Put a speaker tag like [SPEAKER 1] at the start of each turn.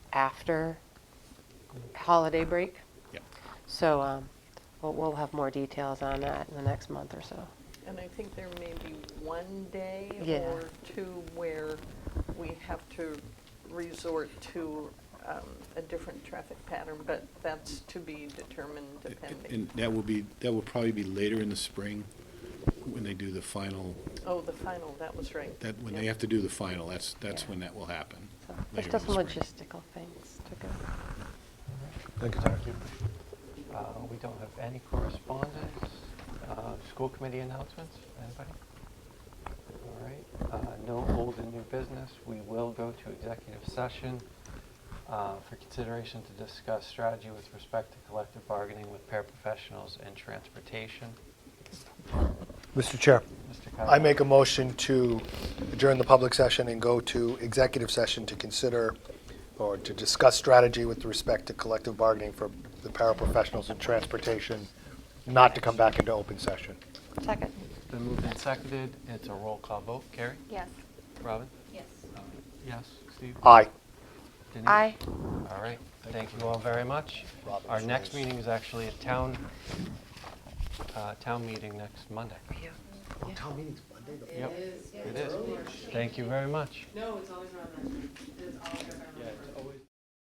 [SPEAKER 1] after holiday break.
[SPEAKER 2] Yep.
[SPEAKER 1] So um, we'll, we'll have more details on that in the next month or so.
[SPEAKER 3] And I think there may be one day
[SPEAKER 1] Yeah.
[SPEAKER 3] or two where we have to resort to um, a different traffic pattern, but that's to be determined depending.
[SPEAKER 2] And that will be, that will probably be later in the spring when they do the final,
[SPEAKER 3] Oh, the final, that was right.
[SPEAKER 2] that, when
[SPEAKER 3] Yeah.
[SPEAKER 2] they have to do the final, that's, that's
[SPEAKER 1] Yeah.
[SPEAKER 2] when that will happen.
[SPEAKER 1] So there's
[SPEAKER 2] later
[SPEAKER 1] just
[SPEAKER 2] in the
[SPEAKER 1] some
[SPEAKER 2] spring.
[SPEAKER 1] logistical things to go.
[SPEAKER 4] Thank you, Thank you. Uh, We don't have any correspondence, Uh, school committee announcements, anybody? All right, Uh, no old and new business. We will go to executive session uh, for consideration to discuss strategy with respect to collective bargaining with paraprofessionals and transportation.
[SPEAKER 5] Mr. Chair,
[SPEAKER 4] Mr.
[SPEAKER 5] I
[SPEAKER 4] Kyle?
[SPEAKER 5] make a motion to adjourn the public session and go to executive session to consider or to discuss strategy with respect to collective bargaining for the paraprofessionals in transportation, not to come back into open session.
[SPEAKER 1] Second.
[SPEAKER 4] Been moved and seconded. It's a roll call vote. Carrie?
[SPEAKER 6] Yes.
[SPEAKER 4] Robin?
[SPEAKER 6] Yes.
[SPEAKER 4] Yes. Steve?
[SPEAKER 5] Aye.
[SPEAKER 4] Denise?
[SPEAKER 1] Aye.
[SPEAKER 4] All right, thank you all very much.
[SPEAKER 5] Robert's
[SPEAKER 4] Our next
[SPEAKER 5] rules.
[SPEAKER 4] meeting is actually a town, uh, town meeting next Monday.
[SPEAKER 5] Town meeting's Monday, though.
[SPEAKER 4] Yep, it is. Thank you very much.
[SPEAKER 7] No, it's always around that time. It's always around that time.